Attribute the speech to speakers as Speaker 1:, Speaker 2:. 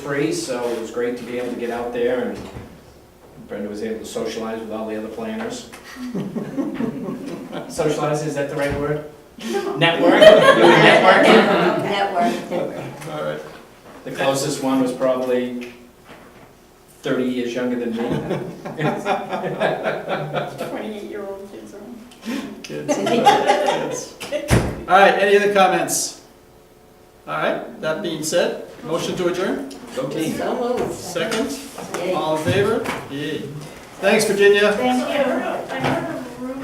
Speaker 1: free, so it was great to be able to get out there and Brenda was able to socialize with all the other planners. Socialize, is that the right word? Network, you were networking?
Speaker 2: Network.
Speaker 3: All right.
Speaker 1: The closest one was probably thirty years younger than me.
Speaker 4: Twenty-eight-year-old kids are.
Speaker 3: Kids. Kids. All right, any other comments? All right, that being said, motion to adjourn,
Speaker 1: Go team.
Speaker 2: So moved.
Speaker 3: second,
Speaker 2: Yay.
Speaker 3: all in favor? Yay. Thanks, Virginia.
Speaker 4: Thank you.